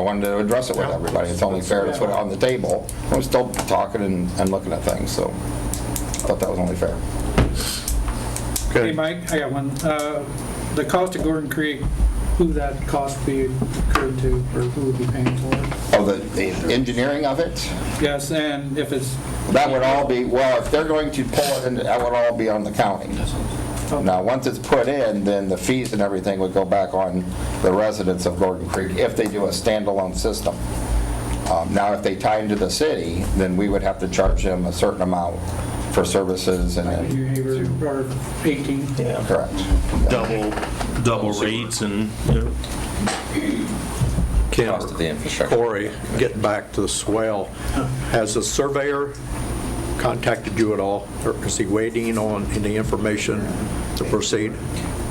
wanted to address it with Yeah. everybody. It's only fair to put it on the table. I'm still talking and, and looking at things, so thought that was only fair. Okay. Hey, Mike, I got one. Uh, The cost of Gordon Creek, who that cost be incurred to, or who would be paying for it? Oh, the, the engineering of it? Yes, and if it's, That would all be, well, if they're going to pull it in, that would all be on the county. Now, once it's put in, then the fees and everything would go back on the residents of Gordon Creek if they do a standalone system. Um, Now, if they tie into the city, then we would have to charge them a certain amount for services and, like then- New Haven or 18, correct. Double, double rates and, you know, Kim, Cost of the infrastructure. Corey, getting back to the swell, has the surveyor contacted you at all? Or is he waiting on any information to proceed?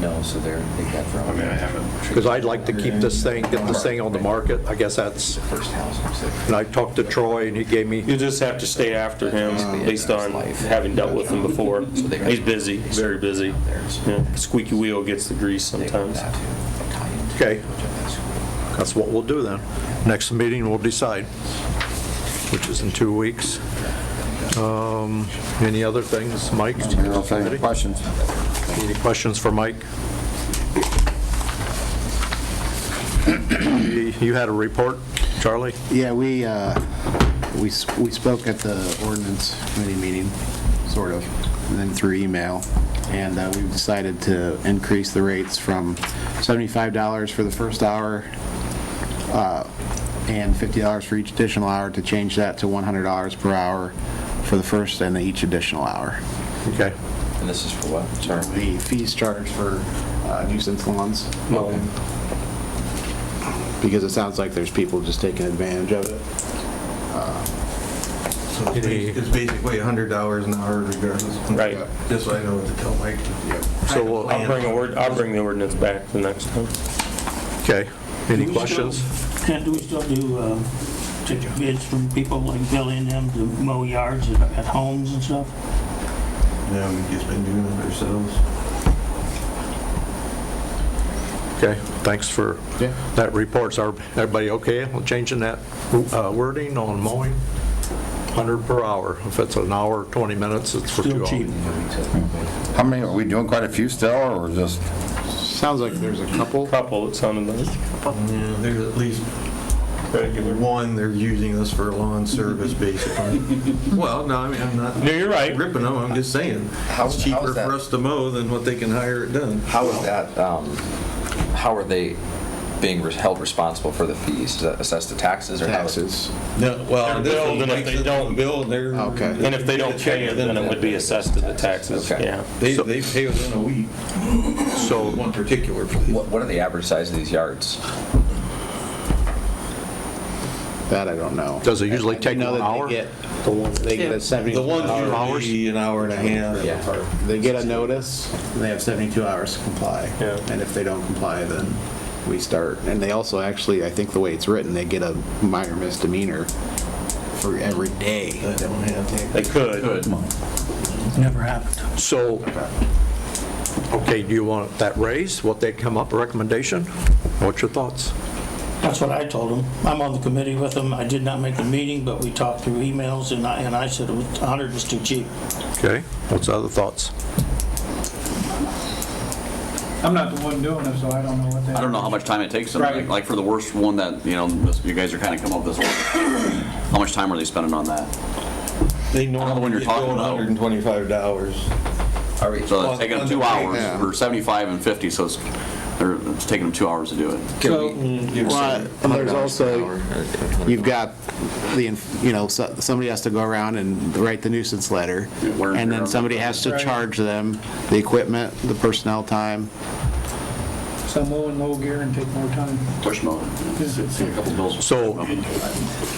No, so they're, they got their own. I mean, I haven't. Because I'd like to keep this thing, get this thing on the market. I guess that's, First house. I'm sick. and I talked to Troy and he gave me, you just have to stay after him based on having dealt with him before. He's busy, very busy. Yeah, Squeaky wheel gets the grease They got sometimes. that too. Italian. Okay. That's cool. that's what we'll do then. Next meeting, we'll decide, which is in two weeks. Um, Any other things, Mike? Any questions? Any questions for Mike? You had a report, Charlie? Yeah, we, uh, we s- we spoke at the ordinance committee meeting, sort of, and then through email, and uh, we've decided to increase the rates from $75 for the first hour uh, and $50 for each additional hour, to change that to $100 per hour for the first and each additional hour. Okay. And this is for what? Sorry. The fees charged for uh, nuisance lawns. Because it sounds like there's people just taking advantage of it. So it's basi- it's basically hundred dollars an hour regardless. Right. Just so I know what to tell Mike. So we'll- I'll bring a word, I'll bring the ordinance back the next time. Okay. Any questions? And do we still do, uh, take bids from people like Billy and them to mow yards at at homes and stuff? Yeah, we've just been doing it ourselves. Okay, thanks for Yeah. that report. So everybody okay? We're changing that uh, wording on mowing, 100 per hour. If it's an hour, 20 minutes, it's for two Still hours. cheap. How many, are we doing quite a few still, or just? Sounds like there's a couple. Couple, it sounded like. Yeah, there's at least one, they're using us for lawn service basically. Well, no, I mean, I'm not No, you're right. ripping them, I'm just saying. How's- It's cheaper how's that? for us to mow than what they can hire it done. How is that, um, how are they being re- held responsible for the fees? Is that assessed to taxes or? how is- Taxes. No, well, They're this billed, and if makes they it don't- bill, they're. Okay. And if they don't pay it, then it would be assessed to the taxes, Okay. yeah. They, they pay within a week, So one particular place. What, what are the average size of these yards? That I don't know. does it usually I take know one that they hour? get- They get a The 72 ones hour, usually an hour and a half. Yeah. they get a notice, and they have 72 hours to comply. Yeah. And if they don't comply, then we start. And they also actually, I think the way it's written, they get a minor misdemeanor for every day. that they have. They could. Never happened. So, okay, do you want that raised? What they come up, recommendation? What's your thoughts? That's what I told them. I'm on the committee with them. I did not make the meeting, but we talked through emails and I, and I said it was- 100 was too cheap. Okay, what's other thoughts? I'm not the one doing it, so I don't know what that. I don't know how much time it takes them, Right. like for the worst one that, you know, this- you guys are kind of come up with this one. How much time are they spending on that? They Another one normally you're get talking billed about. $125. Are we, So it's taking them two hours, Yeah. or 75 and 50, so it's, they're- it's taking them two hours to do it. So, Well, and there's uh, also, you've got the, inf- you know, so- somebody has to go around and write the nuisance letter. Yeah, wear And and tear on then the somebody has to Right. charge them the equipment, the personnel time. so mow in low gear and take more time. Push mode. A couple bills. So, am I I was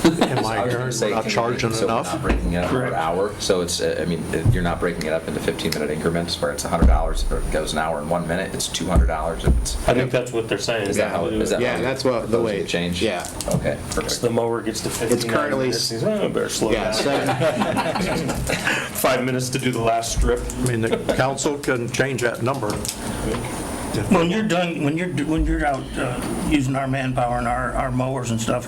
gonna hearing say, we're not can you- charging so we're enough? Not breaking it up per Correct. hour, so it's, uh, I mean, it- you're not breaking it up into 15-minute increments where it's $100, or it goes an hour and one minute, it's $200 if it's. I think that's what they're saying. Is that how, is that? Yeah, how that's what the proposing way. to Change? Yeah. Okay, perfect. The mower gets to 59. currently- minutes. He's, "Oh, I better slow Yeah, down. seven- Five minutes to do the last strip. I mean, the council can change that number. When you're done, when you're, when you're out uh, using our manpower and our our mowers and stuff,